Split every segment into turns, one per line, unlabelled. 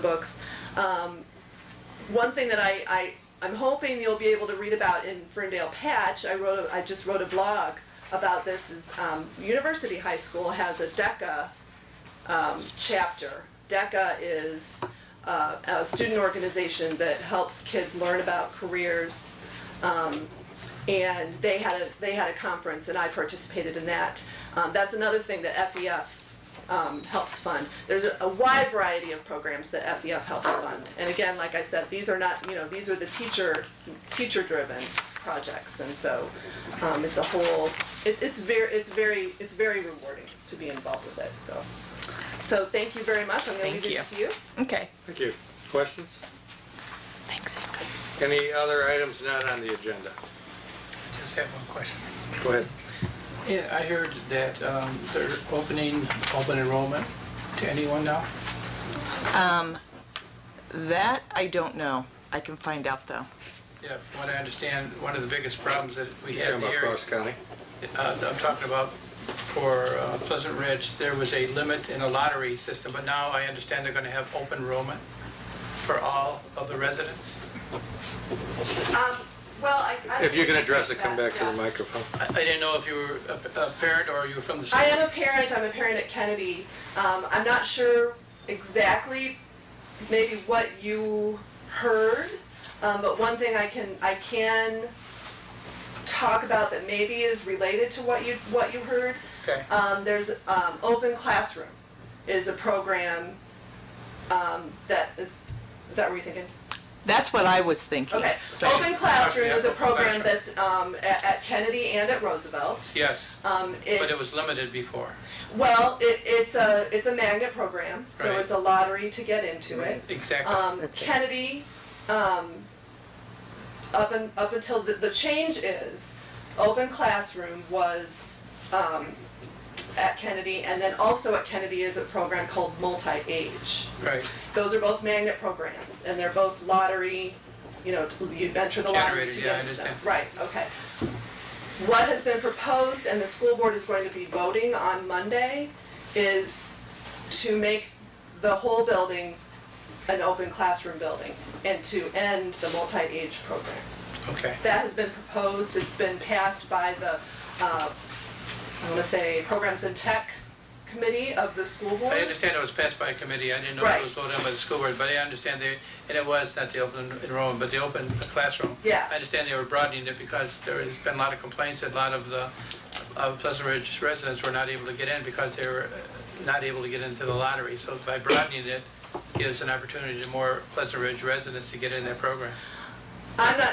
the books. Um, one thing that I, I, I'm hoping you'll be able to read about in Ferndale Patch, I wrote, a- I just wrote a blog about this, is, um, University High School has a DECA, um, chapter. DECA is, uh, a student organization that helps kids learn about careers. Um, and they had a, they had a conference and I participated in that. Um, that's another thing that FEF um, helps fund. There's a, a wide variety of programs that FEF helps fund. And again, like I said, these are not, you know, these are the teacher, teacher-driven projects. And so, um, it's a whole, it, it's very, it's very, it's very rewarding to be involved with it, so. So thank you very much. I'm gonna leave
Thank
this to you.
Okay.
Thank you. Questions?
Thanks, Ingrid.
Any other items not on the agenda?
Just have one question.
Go ahead.
Yeah, I heard that um, they're opening open enrollment to anyone now.
That I don't know. I can find out though.
Yeah, from what I understand, one of the biggest problems that we
Talking
have in the
about
area.
Cross County?
uh, I'm talking about for uh, Pleasant Ridge, there was a limit in the lottery system, but now I understand they're going to have open enrollment for all of the residents.
Well, I.
If you can address it, come back to the microphone.
I I didn't know if you were a a parent or you were from the
I
state.
am a parent, I'm a parent at Kennedy. Um, I'm not sure exactly maybe what you heard, um, but one thing I can, I can talk about that maybe is related to what you, what you heard.
Okay,
Um, there's, um, Open Classroom is a program, um, that is, is that what you're thinking?
That's what I was thinking.
Okay,
Same.
Open Classroom is a
Open
program
Classroom.
that's, um, at, at Kennedy and at Roosevelt.
yes,
Um,
but it was limited before.
Well, it, it's a, it's a magnet program, so
Right.
it's a lottery to get into it.
Exactly.
Um,
That's it.
Kennedy, um, up and, up until, the, the change is, open classroom was, um, at Kennedy, and then also at Kennedy is a program called multi-age.
Right,
Those are both magnet programs, and they're both lottery, you know, you enter the lottery
Generated,
to
yeah, I
get into them.
understand.
Right, okay. What has been proposed, and the school board is going to be voting on Monday, is to make the whole building an open classroom building and to end the multi-age program.
okay.
That has been proposed, it's been passed by the, uh, I wanna say, Programs and Tech Committee of the school board.
I understand it was passed by a committee, I didn't know
Right.
it was voted on by the school board, but I understand they, and it was not the open enrollment, but the open classroom.
Yeah.
I understand they were broadening it because there has been a lot of complaints, that a lot of the uh, Pleasant Ridge residents were not able to get in because they were uh, not able to get into the lottery. So by broadening it, gives an opportunity to more Pleasant Ridge residents to get in that program.
I'm not,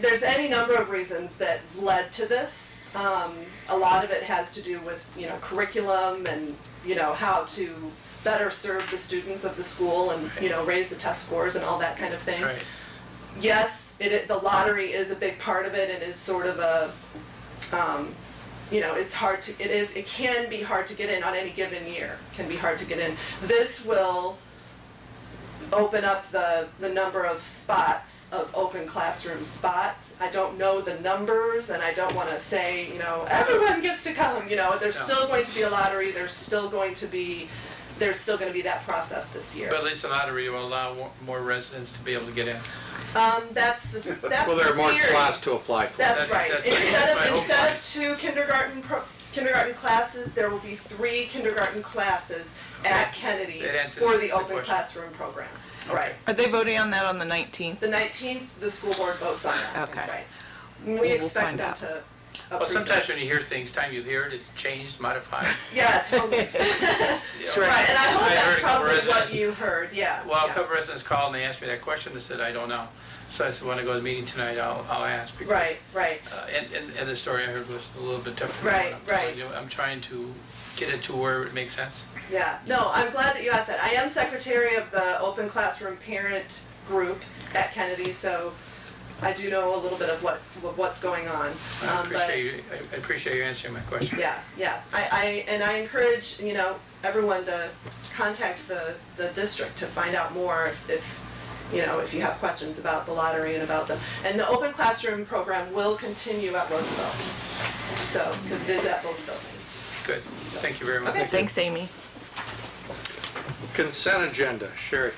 there's any number of reasons that led to this. Um, a lot of it has to do with, you know, curriculum and, you know, how to better serve the students of the school and, you know, raise the test scores and all that kind of thing.
Right,
Yes, it, it, the lottery is a big part of it and is sort of a, um, you know, it's hard to, it is, it can be hard to get in on any given year, can be hard to get in. This will open up the, the number of spots, of open classroom spots. I don't know the numbers and I don't wanna say, you know, everyone gets to come, you know, there's
No.
still going to be a lottery, there's still going to be, there's still gonna be that process this year.
but at least the lottery will allow more- more residents to be able to get in.
Um, that's the, that's the theory.
Well, there are more slots to apply for.
That's
That's-
right.
that's- that's
Instead
my
of,
hope.
instead of two kindergarten, pro- kindergarten classes, there will be three kindergarten classes at Kennedy
That answers
for the
the
open
question.
classroom program. Right.
Are they voting on that on the 19th?
The nineteenth, the school board votes on that.
Okay.
Right.
we'll
We expect
find
them
out.
to
Well,
approve
sometimes
that.
when you hear things, time you hear it, it's changed, modified.
Yeah, totally. Right,
you know.
and I hope
I heard
that's
a couple
probably what
residents-
you heard, yeah.
Well, a
yeah.
couple residents called and they asked me that question, I said, I don't know. So I said, when I go to the meeting tonight, I'll, I'll ask. because,
Right, right.
uh, And, and, and the story I heard was a little bit different. than
Right,
what I'm telling
right.
you. I'm trying to get it to where it makes sense.
Yeah, no, I'm glad that you asked that. I am secretary of the Open Classroom Parent Group at Kennedy, so I do know a little bit of what, of what's going on.
I
Um, but-
appreciate you, I- I appreciate you answering my question.
Yeah, yeah, I, I, and I encourage, you know, everyone to contact the, the district to find out more if, if, you know, if you have questions about the lottery and about the, and the Open Classroom program will continue at Roosevelt. So, because it is at both buildings.
Good, thank you very much.
Okay.
Thanks, Amy.
Consent agenda, Sherry.